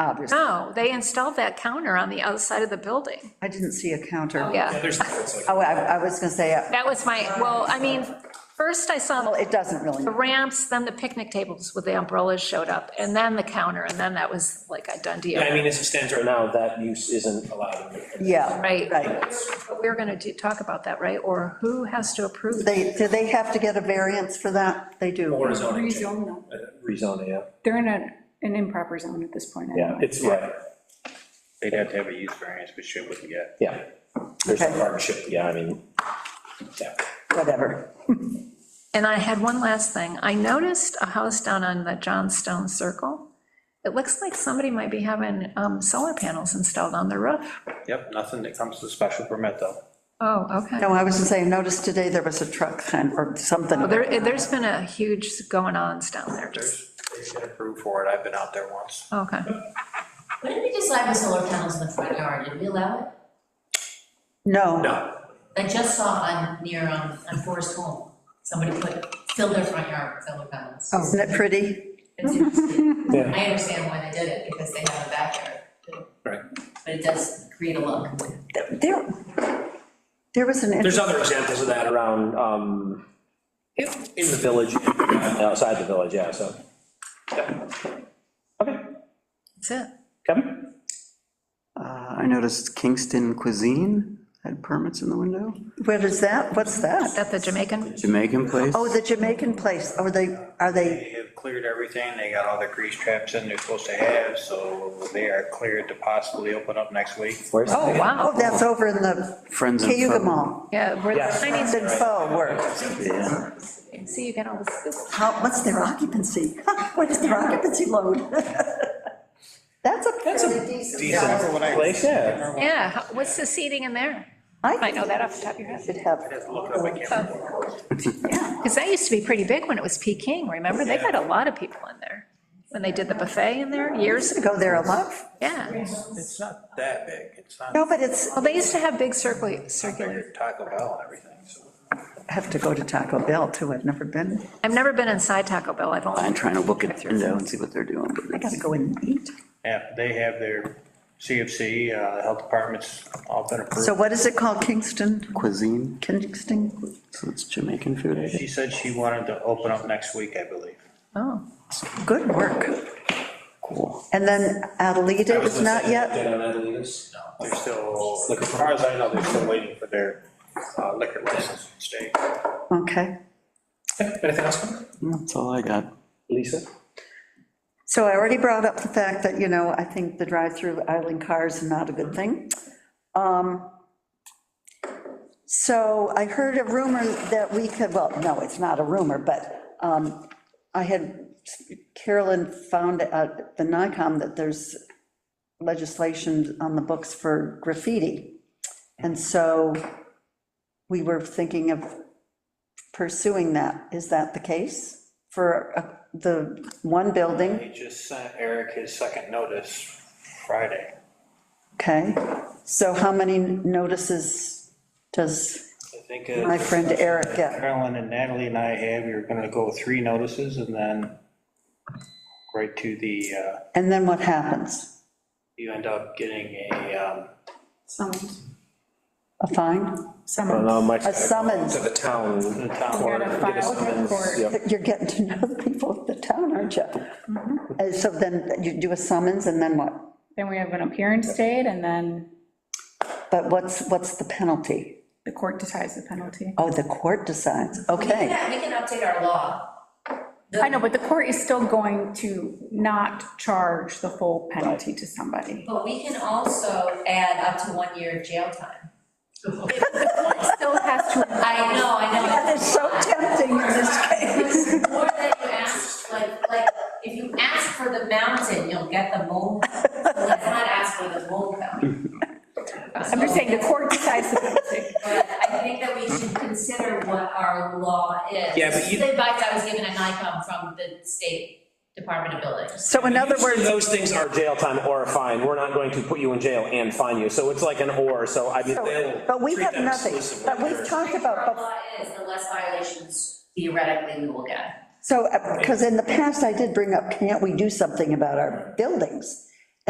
obviously. No, they installed that counter on the outside of the building. I didn't see a counter. Oh, Yeah, There's, it's like, Oh, I, I was gonna say, uh, that was my, well, I mean, first I saw well, it doesn't really, the ramps, then the picnic tables with the umbrellas showed up, and then the counter, and then that was like a done deal. yeah, I mean, as it stands right now, that use isn't allowed. in the- yeah. Right. Right. But We're going to talk about that, right? Or who has to approve? They, do they have to get a variance for that? They Or a do. zoning change. Rezone them. Uh, Rezoning, yeah. They're in a, an improper zone at this point. Yeah, anyway. it's, right, They'd have to have a use variance, which they wouldn't get. yeah. There's a Okay. hardship, yeah, I mean, yeah. Whatever. And I had one last thing. I noticed a house down on the Johnstone Circle. It looks like somebody might be having um, solar panels installed on the roof. Yep, nothing that comes to special permit, though. Oh, okay. No, I was gonna say, I noticed today there was a truck kind or something. Well, Oh, There, there's been a huge going-ons down there, just, There's, they've been approved for it, I've been out there once. okay. What did we decide with solar panels in the front yard? Did we allow it? No, No, I just saw on, near, um, on Forest Home, somebody put, filled their front yard with solar panels. isn't it pretty? It's interesting. Yeah. I understand why they did it, because they have a backyard. Right. But it does create a look. There, there was an, there's inter- other examples of that around, um, in in the village, outside the village, yeah, so. yeah. Okay, That's it. Kevin? Uh, I noticed Kingston Cuisine had permits in the window. what is that? What's that? At the Jamaican, Jamaican place. Oh, the Jamaican place. Are they, are they, They have cleared everything, they got all the grease traps in they're supposed to have, so they are cleared to possibly open up next week. Where's- oh, oh, wow. that's over in the Friends and Cayuga Foe. Mall. Yeah, where the Yeah. Friends Chinese, and Foe were. Yeah. see, you get all the scoop. How, what's their occupancy? What is their occupancy load? That's a fairly decent. size. Place, yeah. Yeah, how- what's the seating in there? I Might think know that off the top of your it head. should have, Because that used to be pretty big when it was Peking, remember? They got a lot of people in there. When they did the buffet in there years ago, go there a lot. yeah. It's not that big, it's not No, but it's, Well, they used to have big circul- circular, bigger Taco Bell and everything, so. I have to go to Taco Bell too. I've never been. I've never been inside Taco Bell, I've only. I'm trying to look at the window and see what they're doing. but I gotta go in and eat. Yeah, they have their CFC, uh, health department's all been So approved. what is it called? Kingston? Cuisine, Kingston? so it's Jamaican food. I She guess. said she wanted to open up next week, I believe. Oh, Good work. Cool. And then Adelita is not yet? Dead on Adelitas? They're still, as far as I know, they're still waiting for their uh, liquor license in state. Okay. Okay, Anything else? That's all I got. Lisa? So I already brought up the fact that, you know, I think the drive-through idling cars is not a good thing. Um, So I heard a rumor that we could, well, no, it's not a rumor, but um, I had, Carolyn found at the NICOM that there's legislation on the books for graffiti. And so we were thinking of pursuing that. Is that the case for uh, the one building? He just sent Eric his second notice Friday. Okay, so how many notices does I think my uh, friend Eric get? Carolyn and Natalie and I have, we were gonna go three notices and then right to the, uh, And then what happens? you end up getting a, um, Summons, A fine? summons. A summons? To the town. the town You're gonna clerk. file with court. Yep. You're getting to know the people of the town, aren't you? Mm-hmm. And so then you do a summons and then what? Then we have an appearance date, and then But what's, what's the penalty? the court decides the penalty. Oh, the court decides, We okay. can, we can update our law. The- I know, but the court is still going to not charge the full penalty to somebody. But we can also add up to one year of jail time. Still has to, I know, I know. That is so tempting in this case. More than you asked, like, like, if you ask for the mountain, you'll get the mole. Let's not ask for the mole mountain. I'm just saying, the court decides the penalty. But I think that we should consider what our law is. Yeah, but you- The advice I was given at NICOM from the State Department of Buildings. So in other Usually words, Those things are jail time or a fine. We're not going to put you in jail and fine you. So it's like an or, so I mean, they'll. but we treat have them nothing, exclusively. but we've talked Our about, law is, the less violations theoretically we will get. uh, So, because in the past, I did bring up, can't we do something about our buildings?